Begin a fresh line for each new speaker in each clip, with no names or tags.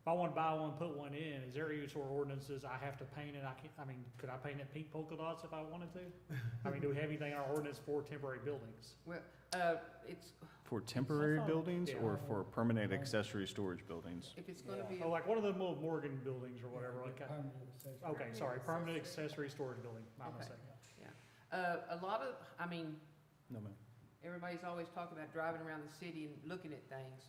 if I wanna buy one, put one in, is there areas where ordinances I have to paint it, I can, I mean, could I paint it pink polka dots if I wanted to? I mean, do we have anything in our ordinance for temporary buildings?
Uh, it's,
For temporary
thought-
buildings or
Yeah.
for permanent accessory storage buildings?
if it's gonna be,
Oh, like one of the little Morgan buildings or whatever, like, uh,
Okay.
okay, sorry, permanent accessory storage building, my
Okay.
mistake.
uh, a lot of, I mean,
No, ma'am.
everybody's always talking about driving around the city and looking at things.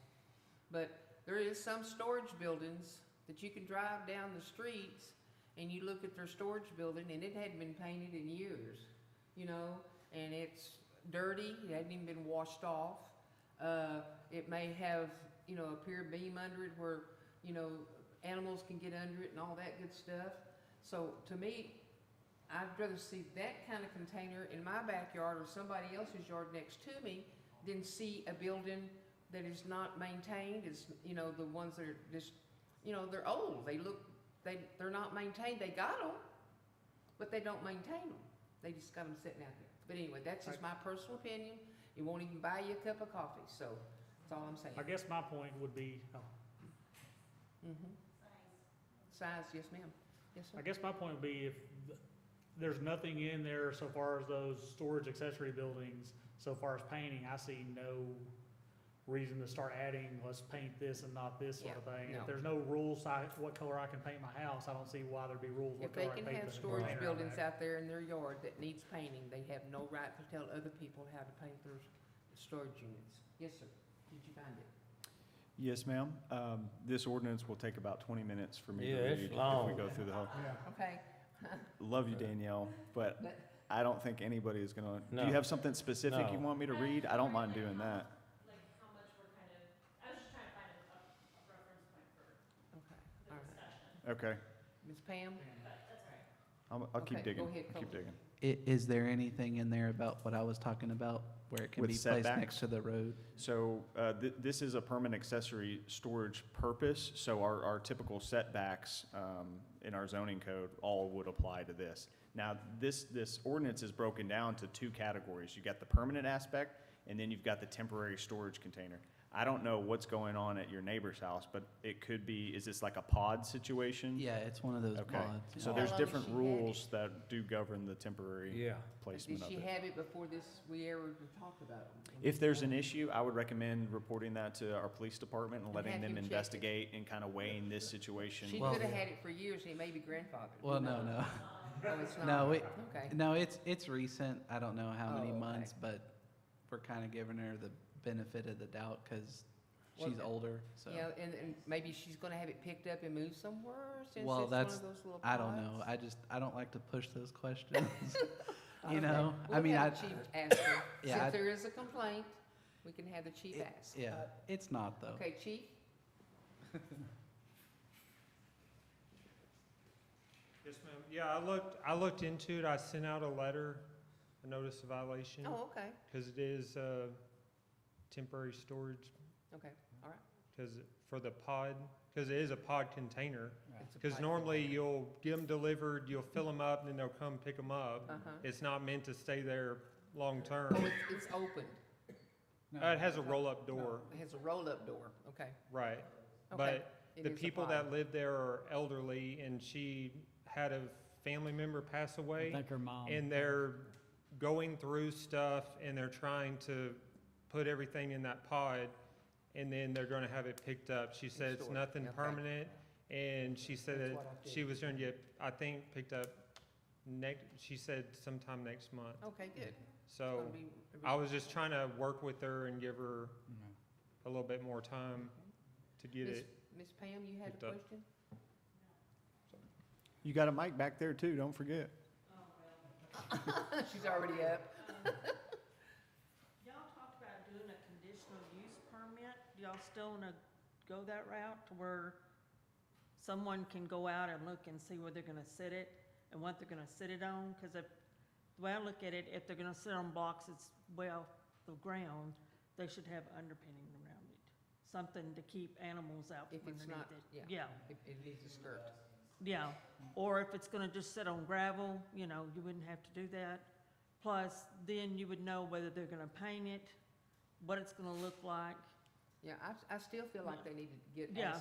But there is some storage buildings that you can drive down the streets and you look at their storage building and it hadn't been painted in years, you know? And it's dirty, it hadn't even been washed off. Uh, it may have, you know, a pier beam under it where, you know, animals can get under it and all that good stuff. So to me, I'd rather see that kind of container in my backyard or somebody else's yard next to me than see a building that is not maintained, is, you know, the ones that are just, you know, they're old, they look, they, they're not maintained, they got them, but they don't maintain them. They just got them sitting out there. But anyway, that's just my personal opinion, it won't even buy you a cup of coffee, so that's all I'm saying.
I guess my point would be, oh,
Mhm. Size, yes ma'am, yes
I
sir.
guess my point would be if th- there's nothing in there so far as those storage accessory buildings, so far as painting, I see no reason to start adding, let's paint this and not this sort of thing.
no.
If there's no rules, I, what color I can paint my house, I don't see why there'd be rules
If
what
they
color I
can
paint
have
the
storage
container
buildings
back.
out there in their yard that needs painting, they have no right to tell other people how to paint their s- storage units. Yes, sir. Did you find it?
Yes, ma'am. Um, This ordinance will take about 20 minutes for me to
Yeah,
read.
it's
If we
long.
go through the whole,
Okay.
love you, Danielle, but
But-
I don't think anybody is gonna, do
No.
you have something specific you
No.
want me to read? I don't mind doing that.
like how much we're kind of, I was just trying to find a, a
Okay,
a reference point for the
all right.
discussion,
Okay,
Ms. Pam?
but that's all right.
I'll, I'll keep
Okay, go
digging,
ahead,
I'll keep
Colby.
digging.
I- is there anything in there about what I was talking about where it can
With
be placed
setbacks?
next to the road?
So uh, th- this is a permanent accessory storage purpose, so our, our typical setbacks um, in our zoning code all would apply to this. Now, this, this ordinance is broken down to two categories. You've got the permanent aspect, and then you've got the temporary storage container. I don't know what's going on at your neighbor's house, but it could be, is this like a pod situation?
Yeah, it's one of those
Okay,
pods.
so
How
there's
long has
different
she had it?
rules that do govern the temporary
Yeah.
Did
placement of
she
it.
have it before this, we ever even talked about it?
If there's an issue, I would recommend reporting that to our police department and
And
letting
have him
them
check it.
investigate and kind of weighing this situation.
She
Well-
could have had it for years, and it may be grandfathered. Who
Well, no,
knows?
no,
Oh, it's not?
no, it,
Okay,
no, it's, it's recent. I don't know how
Oh,
many
okay.
months, but we're kind of giving her the benefit of the doubt because
Well,
she's older, so.
yeah, and, and maybe she's gonna have it picked up and moved somewhere since it's
Well,
one of
that's-
those little
I don't know.
pods?
I just, I don't like to push those questions.
Okay.
You know, I
We'll
mean, I,
have the chief ask her.
Yeah, I-
Since there is a complaint, we can have the chief
It-
ask.
yeah, it's not though.
Okay, chief?
Yes, ma'am. Yeah, I looked, I looked into it. I sent out a letter, a notice of violation,
Oh, okay,
because it is, uh, temporary storage,
okay.
because, for the pod, because it is a pod container.
It's a
Because
pipe.
normally you'll get them delivered, you'll fill them up, and then they'll come pick them up.
Uh-huh.
It's not meant to stay there
Oh,
long-term.
it's, it's open.
Uh, It has a roll-up door,
It has a roll-up door, okay.
right.
Okay.
But
It
the
is a
people
pod.
that live there are elderly, and she had a family member pass away.
Thank her
Um,
mom.
and they're going through stuff and they're trying to put everything in that pod and then they're gonna have it picked up. She said it's
stored,
nothing
okay.
permanent and she said
That's
that
what I
she was gonna get, I think, picked up next, she said sometime next month.
Okay, good. It's
So
gonna be-
I was just trying to work with her and give her
Mm-hmm.
a little bit more time to get
Miss
it.
Miss Pam, you had a
picked up.
question?
You got a mic back there too, don't forget.
Oh,
She's already up.
Y'all talked about doing a conditional use permit. Do y'all still wanna go that route to where someone can go out and look and see where they're gonna sit it and what they're gonna sit it on? Cause if, the way I look at it, if they're gonna sit on blocks, it's well, the ground, they should have underpinning around it. Something to keep animals out
If
from
it's
underneath it.
not- yeah.
Yeah.
It, it needs a skirt.
Yeah, or if it's gonna just sit on gravel, you know, you wouldn't have to do that. Plus, then you would know whether they're gonna paint it, what it's gonna look like.
Yeah, I, I still feel like they need to get
Yeah,
asked